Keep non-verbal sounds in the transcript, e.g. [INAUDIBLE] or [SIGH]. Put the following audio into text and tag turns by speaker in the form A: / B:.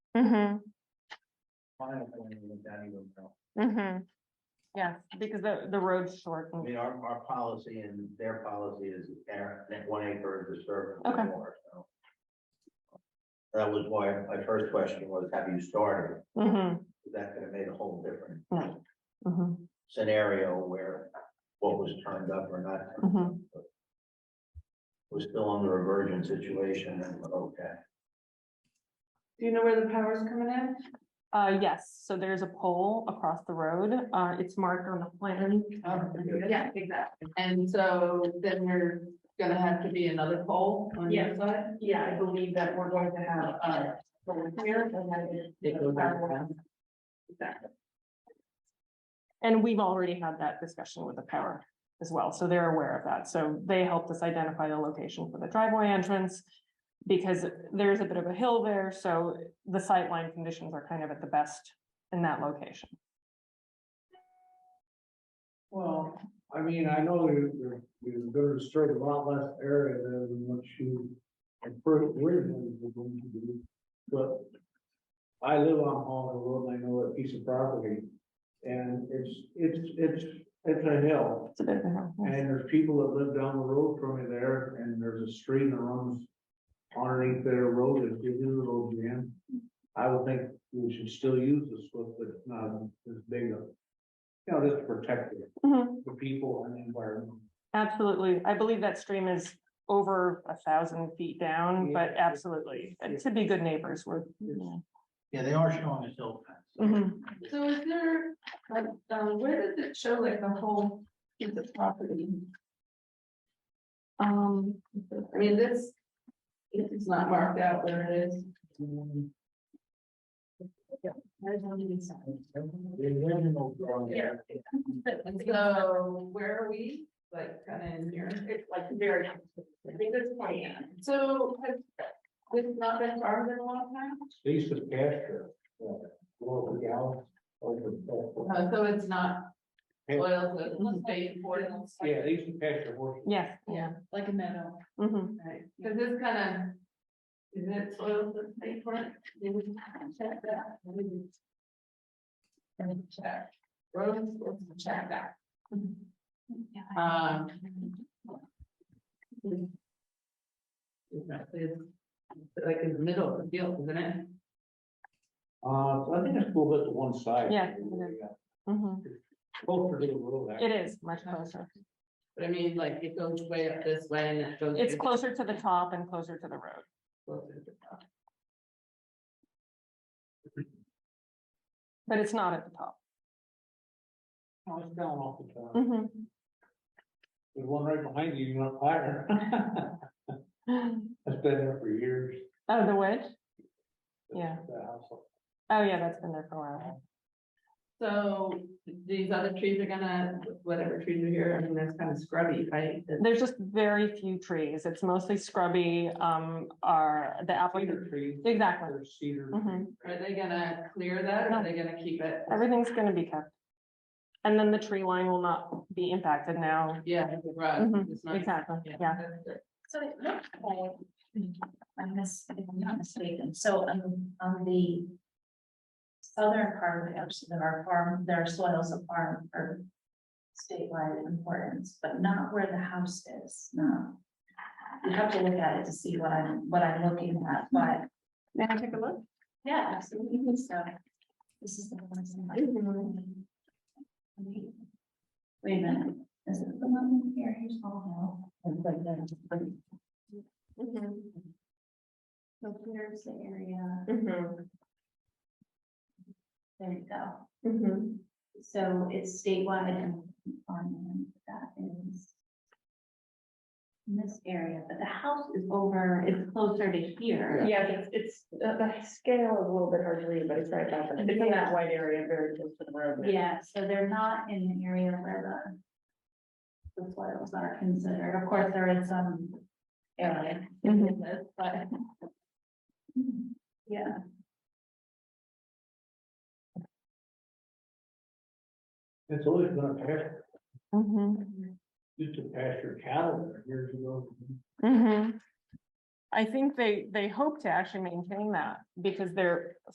A: Mm-hmm,
B: final plan with that even though.
A: mm-hmm. Yes, because the, the road's short.
B: I
A: and-
B: mean, our, our policy and their policy is air, that one acre is disturbed
A: Okay.
B: or more, so. That was why my first question was, have you started?
A: Mhm,
B: That could have made a whole different
A: mhm,
B: scenario where what was turned up or not turned
A: mhm.
B: was still under a virgin situation and, okay.
C: Do you know where the power's coming in?
A: Uh, yes, so there's a pole across the road. Uh, it's marked on the plan.
C: Yeah, exactly. And so then we're gonna have to be another pole on your side? Yeah, I believe that we're going to have, uh, someone here and then. Exactly.
A: And we've already had that discussion with the power as well, so they're aware of that. So they helped us identify the location for the driveway entrance. Because there's a bit of a hill there, so the sightline conditions are kind of at the best in that location.
D: Well, I mean, I know you're, you're, you're gonna disturb a lot less area than what you. and first we're going to do, but. I live on Holland Road, and I know that piece of property. And it's, it's, it's, it's a hill,
A: It's a bit of a hill. yes.
D: and there's people that live down the road from me there, and there's a stream that runs. Underneath their road, if you do the road jam, I would think we should still use the slip, but it's not as big of. You know, just to protect it
A: Mhm,
D: the people and the environment.
A: Absolutely. I believe that stream is over a thousand feet down,
D: Yeah.
A: but absolutely, and to be good neighbors, we're. yeah.
B: Yeah, they are showing us still.
C: Mm-hmm.
A: Mhm.
C: So is there, like, um, where does it show like the whole piece of property?
A: Um,
C: I mean, this, it's not marked out where it is. There's no need sign. Yeah. So where are we, like, kind of in here, it's like very, I think it's plan, so has this not been farmed in a long time?
D: These is pasture. uh, Well, the gal, or the-
C: Uh, So it's not oil, so it's not paid for.
D: Yeah, these is pasture horses.
A: yes, yeah.
C: like a meadow.
A: Mhm.
C: Right, cause this kind of, is it soil that's paid for it? Did we check that? Let me check, roads, let's check that. Um. Exactly. Like in the middle of the field, isn't it?
D: Uh, I think it's a little bit to one side.
A: Yeah. Mhm.
D: Closer to the road. actually.
A: It is much closer.
C: But I mean, like it goes way up this way and it goes.
A: It's closer to the top and closer to the road. But it's not at the top.
D: No, it's down off the top.
A: Mhm.
D: There's one right behind you, you're on fire. [LAUGHS] That's been there for years.
A: [GASPS] Oh, the wedge? Yeah.
D: The house.
A: Oh, yeah, that's been there for a while.
C: So these other trees are gonna, whatever trees are here, I mean, that's kind of scrubby, right?
A: There's just very few trees. It's mostly scrubby, um, are the applicant.
D: Cedar trees.
A: Exactly.
D: There's cedar.
A: Mhm.
C: Are they gonna clear that or are they gonna keep it?
A: Everything's gonna be kept. And then the tree line will not be impacted now.
C: Yeah, it's a rug,
A: Mhm,
C: it's not-
A: Exactly, yeah.
C: that's good.
E: So it looks like, I miss, if I'm not mistaken, so on, on the. Southern part of the house, there are farm, there are soils of farm or statewide importance, but not where the house is, no. You have to look at it to see what I'm, what I'm looking at, but,
C: May I take a look?
E: yeah, absolutely, so. This is the one that's in my. Wait a minute, is it the one here, here's all now? So here's the area, there you go.
A: Mm-hmm.
E: So it's statewide and farmland that is. In this area, but the house is over, it's closer to here.
F: Yeah, it's, it's, the, the scale is a little bit hard to read, but it's right about there. It's in that white area, very close to the road.
E: Yeah, so they're not in an area where the. The soils are considered, of course, there is some area
A: Mhm.
E: in this, but. hmm, Yeah.
D: It's always been a pasture,
A: Mhm.
D: used to pasture cattle there years ago.
A: Mhm. I think they, they hope to actually maintain that because they're